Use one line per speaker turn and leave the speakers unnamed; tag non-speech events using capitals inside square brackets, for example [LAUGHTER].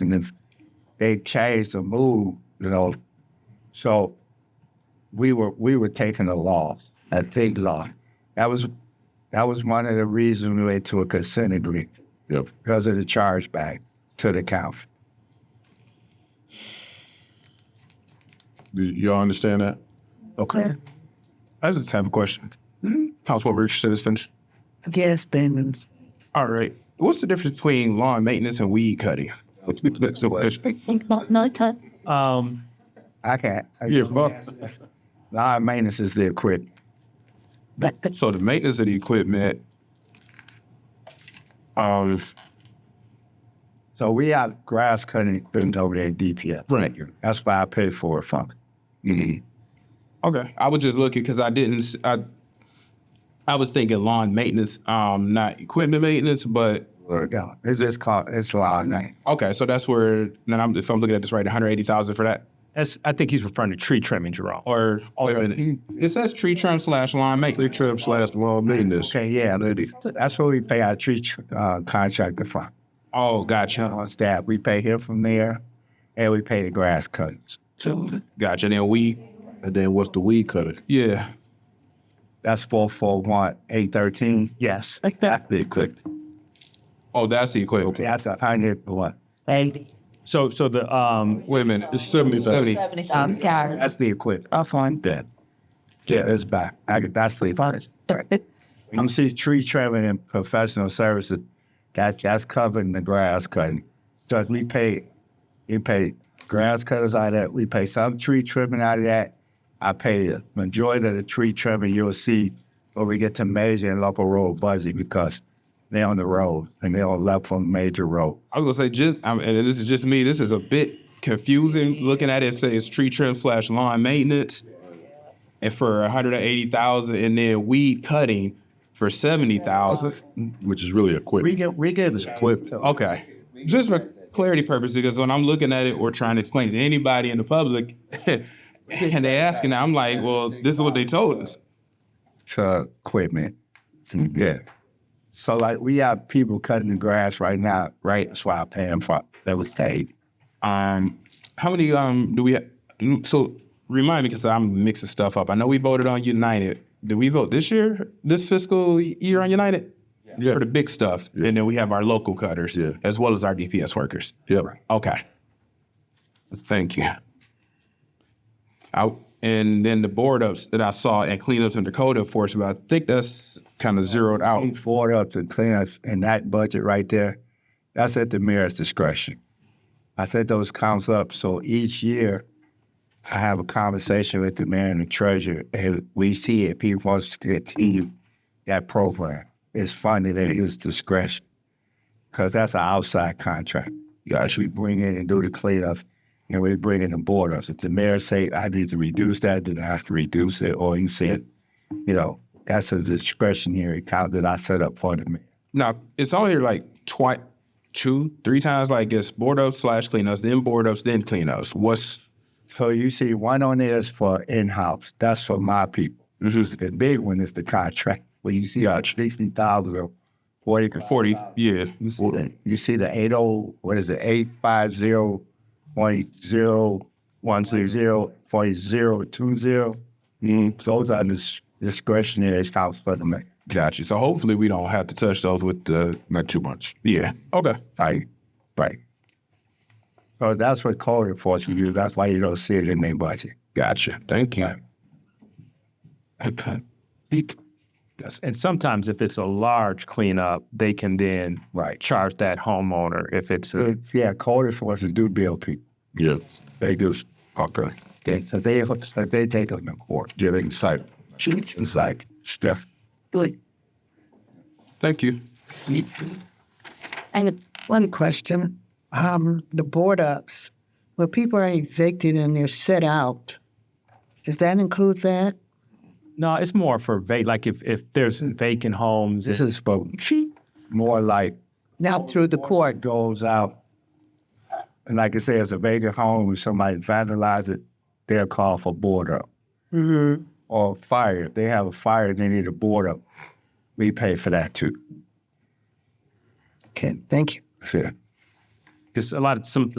and if they changed the move, you know, so we were we were taking a loss, a big loss. That was that was one of the reasons we went to a consent agreement
Yep.
because of the chargeback to the county.
Do y'all understand that?
Okay.
I just have a question. Mm-hmm. Councilwoman Richardson is finished.
Yes, Bengals.
All right. What's the difference between lawn maintenance and weed
[LAUGHS]
cutting?
Noted.
Um,
I can't. I-
Yeah, fuck.
Lawn maintenance is the equipment.
So the maintenance of the equipment. Um,
So we have grass cutting equipment over there at DPS.
Right.
That's why I pay for it, fuck.
okay. I was just looking because I didn't. s- I I was thinking lawn maintenance, um, not equipment maintenance, but
Yeah, it's just called, it's lawn maintenance.
okay. So that's where. Then I'm, if I'm looking at this right, one hundred eighty thousand for that,
that's, I think he's referring to tree trimming, Jerome.
or wait a
yeah.
minute. It says tree trim slash lawn
Tree
maintenance.
trim slash lawn maintenance.
Okay, yeah, that- that's what we pay our tree uh, contractor from.
Oh, gotcha,
on staff. We pay him from there, and we pay the grass cutters.
gotcha. Then we,
And then what's the weed cutter?
yeah.
That's four four one eight thirteen.
Yes.
That's the equipment.
Oh, that's the equipment.
That's a hundred one.
So, so the, um,
Wait a minute. It's seventy. Seventy.
Um, Karen.
That's the equipment. I find that. Yeah, it's back. I could, that's the equipment. I'm see tree trimming and professional services. That that's covering the grass cutting. Cause we pay, we pay grass cutters out of that. We pay some tree trimming out of that. I pay the majority of the tree trimming you'll see when we get to major and local road budget because they're on the road and they're on left on major road.
I was gonna say just, I mean, and this is just me. This is a bit confusing looking at it. Say it's tree trim slash lawn maintenance, and for one hundred and eighty thousand, and then weed cutting for seventy thousand.
Which is really
We
equipment.
get we get equipment.
Okay, just for clarity purposes, because when I'm looking at it or trying to explain it to anybody in the public, [LAUGHS] and they asking, I'm like, well, this is what they told us.
truck equipment. Yeah. So like we have people cutting the grass right now, right? That's why I pay them for that was paid.
Um, how many um do we? Ha- so remind me because I'm mixing stuff up. I know we voted on United. Did we vote this year, this fiscal year on United?
Yeah.
For the big stuff, and then we have our local cutters
Yeah.
as well as our DPS workers.
Yep.
Okay. Thank you. I, and then the board ups that I saw and cleanups in Dakota enforcement, I think that's kind of zeroed out.
We forward up to cleanups and that budget right there, that's at the mayor's discretion. I set those counts up, so each year I have a conversation with the mayor and the treasurer, and we see if he wants to continue that program. It's funded at his discretion, because that's an outside contract. You actually bring in and do the cleanup, and we bring in the board ups. If the mayor say, I need to reduce that, then I have to reduce it, or he said, you know, that's a discretionary account that I set up for the mayor.
Now it's on here like twice, two, three times. Like it's board ups slash cleanups, then board ups, then cleanups. What's
So you see, one on there is for in-house. That's for my people. The big one is the contract. When you see
Gotcha.
sixty thousand or forty,
forty? Yeah,
you see the, you see the eight oh, what is it, eight five zero point zero
one,
zero
two,
zero point zero two zero. Those are dis- discretionary accounts for the mayor.
got you. So hopefully we don't have to touch those with the.
Not too much.
Yeah. Okay.
Right, right. So that's what code enforcement do. That's why you don't see it in their budget.
Gotcha. Thank you.
Yes. And sometimes if it's a large cleanup, they can then
Right.
charge that homeowner if it's a,
It's- Yeah, code enforcement do bill people.
Yeah.
They do.
Okay.
Okay, so they uh, so they take them to court.
Yeah, they can cite. it.
It's like stuff.
Thank you.
And
One question, um, the board ups, where people are evicted and they're set out, does that include that?
no, it's more for va, like if, if there's vacant homes.
This is for more like
Not through the
it
court?
goes out. And like I say, it's a vacant home and somebody vandalizes it, they'll call for board up. Or fire. If they have a fire and they need a board up, we pay for that too.
Okay, thank you.
Yeah.
because a lot of some